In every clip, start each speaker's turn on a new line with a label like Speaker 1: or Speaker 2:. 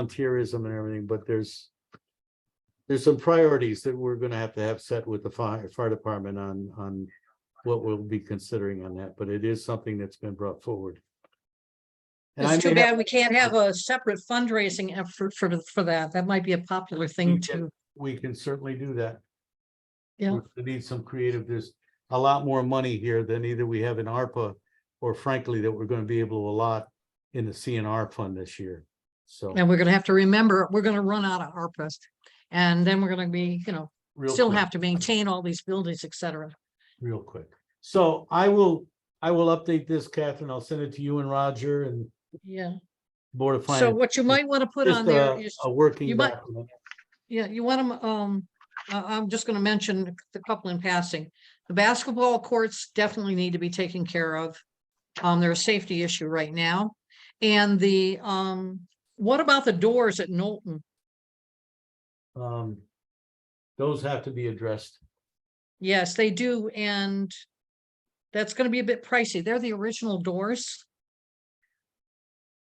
Speaker 1: volunteerism and everything, but there's there's some priorities that we're gonna have to have set with the fire, fire department on, on what we'll be considering on that, but it is something that's been brought forward. And I
Speaker 2: It's too
Speaker 1: may have-
Speaker 2: bad we can't have a separate fundraising effort for, for that. That might be a popular thing
Speaker 1: can-
Speaker 2: too.
Speaker 1: we can certainly do that.
Speaker 2: Yeah.
Speaker 1: We're gonna Need some creative, there's a lot more money here than either we have in ARPA or frankly, that we're gonna be able to allot in the CNR fund this year, so.
Speaker 2: And we're gonna have to remember, we're gonna run out of ARPA's. And then we're gonna be, you know,
Speaker 1: real
Speaker 2: still
Speaker 1: quick.
Speaker 2: have to maintain all these buildings, et cetera.
Speaker 1: real quick. So I will, I will update this, Catherine. I'll send it to you and Roger and
Speaker 2: Yeah.
Speaker 1: Board of
Speaker 2: So
Speaker 1: Finance.
Speaker 2: what you might want to put on
Speaker 1: Just
Speaker 2: there
Speaker 1: a,
Speaker 2: is,
Speaker 1: a working
Speaker 2: you might-
Speaker 1: document.
Speaker 2: yeah, you want to, um, I, I'm just gonna mention a couple in passing. The basketball courts definitely need to be taken care of. Um, they're a safety issue right now. And the, um, what about the doors at Knowlton?
Speaker 1: Um, those have to be addressed.
Speaker 2: Yes, they do, and that's gonna be a bit pricey. They're the original doors.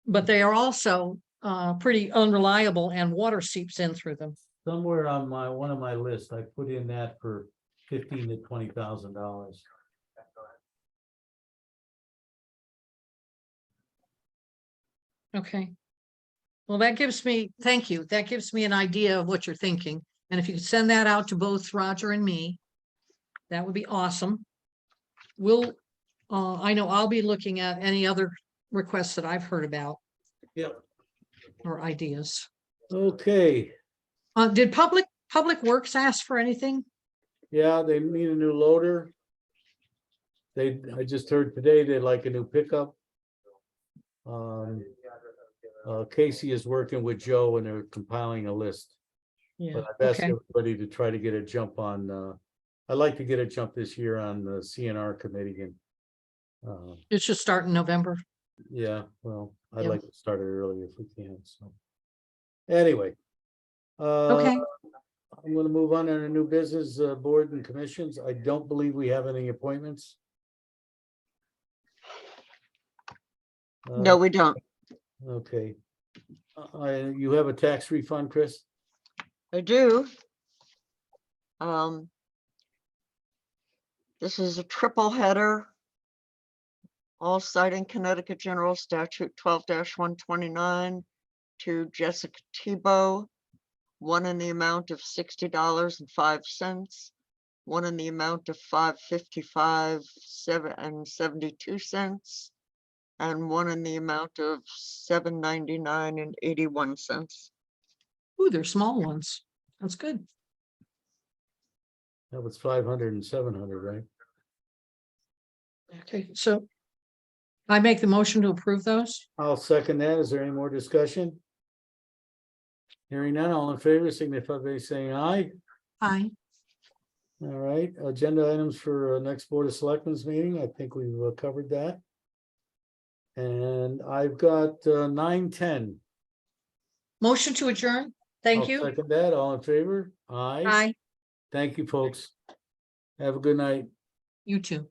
Speaker 2: But they are also uh pretty unreliable and water seeps in through them.
Speaker 1: Somewhere on my, one of my lists, I put in that for fifteen to twenty thousand dollars.
Speaker 2: Okay. Well, that gives me, thank you. That gives me an idea of what you're thinking. And if you could send that out to both Roger and me, that would be awesome. We'll, uh, I know I'll be looking at any other requests that I've heard about.
Speaker 1: Yep.
Speaker 2: Or ideas.
Speaker 1: Okay,
Speaker 2: Uh, did public, public works ask for anything?
Speaker 1: yeah, they need a new loader. They, I just heard today they'd like a new pickup. Um, uh, Casey is working with Joe and they're compiling a list.
Speaker 2: Yeah.
Speaker 1: But I've asked
Speaker 2: Okay,
Speaker 1: everybody to try to get a jump on, uh, I'd like to get a jump this year on the CNR committee and. Uh,
Speaker 2: it should start in November.
Speaker 1: yeah, well, I'd
Speaker 2: Yeah.
Speaker 1: like to start it early if we can, so. Anyway. Uh,
Speaker 2: Okay,
Speaker 1: I'm gonna move on to our new business, uh, board and commissions. I don't believe we have any appointments. Uh,
Speaker 3: No, we don't.
Speaker 1: Okay. Uh, I- you have a tax refund, Chris?
Speaker 3: I do. Um. This is a triple header. All citing Connecticut General Statute twelve one twenty-nine to Jessica Tebow. One in the amount of sixty dollars and five cents, one in the amount of five fifty-five, seven and seventy-two cents. And one in the amount of seven ninety-nine and eighty-one cents.
Speaker 2: ooh, they're small ones. That's good.
Speaker 1: That was five hundred and seven hundred, right?
Speaker 2: Okay, so I make the motion to approve those?
Speaker 1: I'll second that. Is there any more discussion? Hearing none, all in favor, signify by saying aye.
Speaker 2: Aye.
Speaker 1: All right, agenda items for uh, next Board of Selectmen's meeting. I think we've uh, covered that. And I've got uh, nine, ten.
Speaker 2: Motion to adjourn? Thank you.
Speaker 1: Second that, all in favor? Aye.
Speaker 2: Aye,
Speaker 1: Thank you, folks. Have a good night.
Speaker 2: you too.